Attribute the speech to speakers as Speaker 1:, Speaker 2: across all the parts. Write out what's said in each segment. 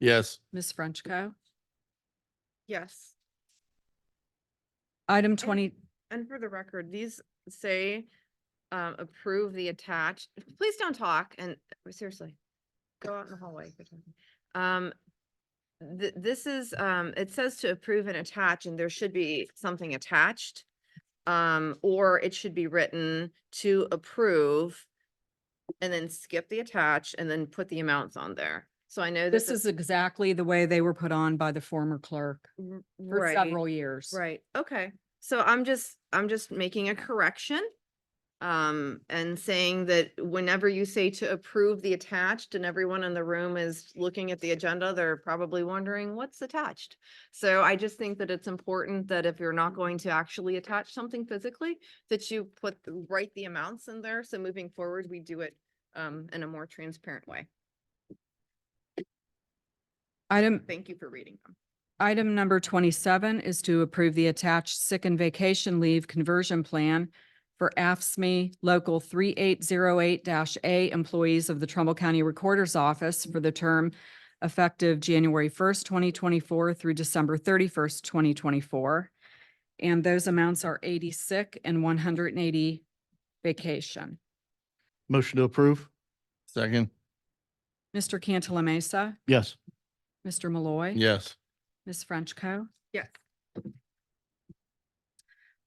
Speaker 1: Yes.
Speaker 2: Ms. Frenchco.
Speaker 3: Yes.
Speaker 2: Item twenty,
Speaker 3: And for the record, these say, um, approve the attached, please don't talk and uh, seriously. Go out in the hallway. if you're talking. Um, th- this is, um, it says to approve and attach and there should be something attached. Um, or it should be written to approve and then skip the attach and then put the amounts on there. So I know
Speaker 2: this is exactly the way they were put on by the former clerk
Speaker 3: r-
Speaker 2: for
Speaker 3: right.
Speaker 2: several years.
Speaker 3: Right, okay. So I'm just, I'm just making a correction. Um, and saying that whenever you say to approve the attached and everyone in the room is looking at the agenda, they're probably wondering what's attached. So I just think that it's important that if you're not going to actually attach something physically, that you put, the- write the amounts in there. So moving forward, we do it um, in a more transparent way.
Speaker 2: Item,
Speaker 3: Thank you for reading them.
Speaker 2: item number twenty-seven is to approve the attached sick and vacation leave conversion plan for AFSMI E Local three eight zero eight A employees of the Trumbull County Recorder's Office for the term effective January first, twenty twenty-four through December thirty-first, twenty twenty-four. And those amounts are eighty sick and one hundred and eighty vacation.
Speaker 1: Motion to approve. Second.
Speaker 2: Mr. Cantala Mesa,
Speaker 1: Yes.
Speaker 2: Mr. Malloy.
Speaker 1: Yes.
Speaker 2: Ms. Frenchco.
Speaker 3: Yes.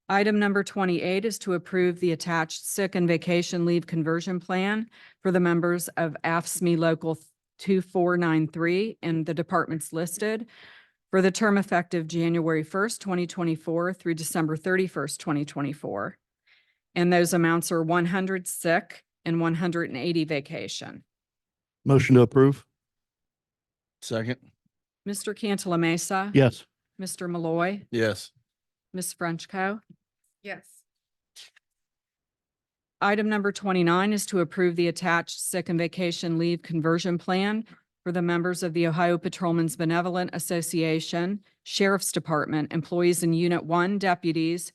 Speaker 2: Item number twenty-eight is to approve the attached sick and vacation leave conversion plan for the members of AFSMI E Local two four nine three and the departments listed for the term effective January first, twenty twenty-four through December thirty-first, twenty twenty-four. And those amounts are one hundred sick and one hundred and eighty vacation.
Speaker 1: Motion to approve. Second.
Speaker 2: Mr. Cantala Mesa.
Speaker 1: Yes.
Speaker 2: Mr. Malloy.
Speaker 1: Yes.
Speaker 2: Ms. Frenchco.
Speaker 3: Yes.
Speaker 2: Item number twenty-nine is to approve the attached sick and vacation leave conversion plan for the members of the Ohio Patrolmen's Benevolent Association, Sheriff's Department, employees in Unit One deputies,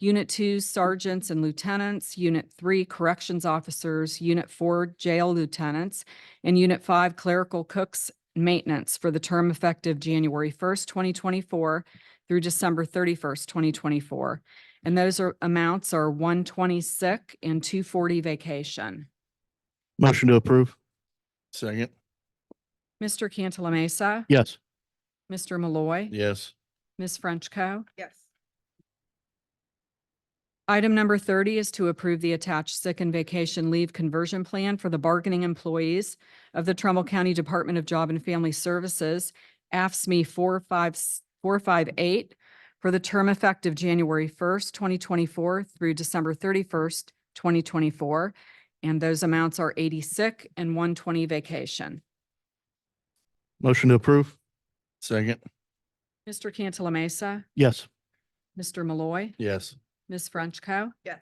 Speaker 2: Unit Two sergeants and lieutenants, Unit Three corrections officers, Unit Four jail lieutenants, and Unit Five clerical cooks and maintenance for the term effective January first, twenty twenty-four through December thirty-first, twenty twenty-four. And those are amounts are one twenty sick and two forty vacation.
Speaker 1: Motion to approve. Second.
Speaker 2: Mr. Cantala Mesa,
Speaker 1: Yes.
Speaker 2: Mr. Malloy,
Speaker 1: Yes.
Speaker 2: Ms. Frenchco.
Speaker 3: Yes.
Speaker 2: Item number thirty is to approve the attached sick and vacation leave conversion plan for the bargaining employees of the Trumbull County Department of Job and Family Services, AFSME E four five, four five eight, for the term effective January first, twenty twenty-four through December thirty-first, twenty twenty-four. And those amounts are eighty sick and one twenty vacation.
Speaker 1: Motion to approve. Second.
Speaker 2: Mr. Cantala Mesa,
Speaker 1: Yes.
Speaker 2: Mr. Malloy,
Speaker 1: Yes.
Speaker 2: Ms. Frenchco.
Speaker 3: Yes.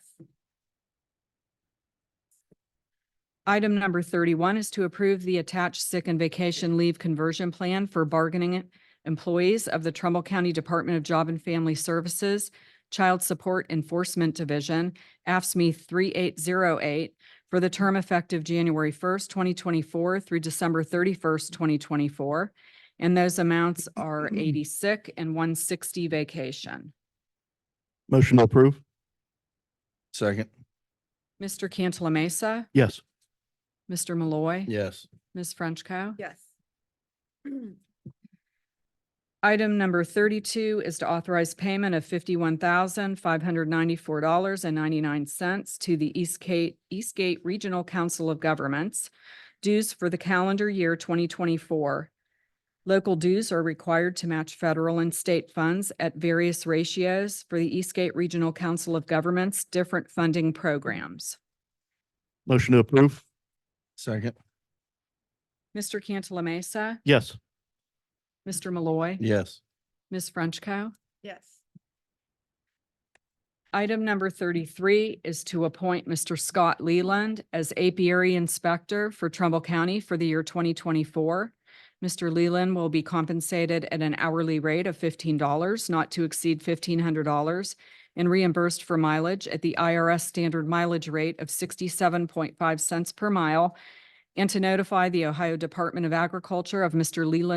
Speaker 2: Item number thirty-one is to approve the attached sick and vacation leave conversion plan for bargaining employees of the Trumbull County Department of Job and Family Services, Child Support Enforcement Division, AFSME E three eight zero eight, for the term effective January first, twenty twenty-four through December thirty-first, twenty twenty-four. And those amounts are eighty sick and one sixty vacation.
Speaker 1: Motion to approve. Second.
Speaker 2: Mr. Cantala Mesa,
Speaker 1: Yes.
Speaker 2: Mr. Malloy.
Speaker 1: Yes.
Speaker 2: Ms. Frenchco.
Speaker 3: Yes.
Speaker 2: Item number thirty-two is to authorize payment of fifty-one thousand, five hundred ninety-four dollars and ninety-nine cents to the Eastgate, Eastgate Regional Council of Governments dues for the calendar year twenty twenty-four. Local dues are required to match federal and state funds at various ratios for the Eastgate Regional Council of Governments' different funding programs.
Speaker 1: Motion to approve. Second.
Speaker 2: Mr. Cantala Mesa,
Speaker 1: Yes.
Speaker 2: Mr. Malloy,
Speaker 1: Yes.
Speaker 2: Ms. Frenchco.
Speaker 3: Yes.
Speaker 2: Item number thirty-three is to appoint Mr. Scott Leland as apiary inspector for Trumbull County for the year twenty twenty-four. Mr. Leland will be compensated at an hourly rate of fifteen dollars, not to exceed fifteen hundred dollars, and reimbursed for mileage at the IRS standard mileage rate of sixty-seven point five cents per mile, and to notify the Ohio Department of Agriculture of Mr. Leland's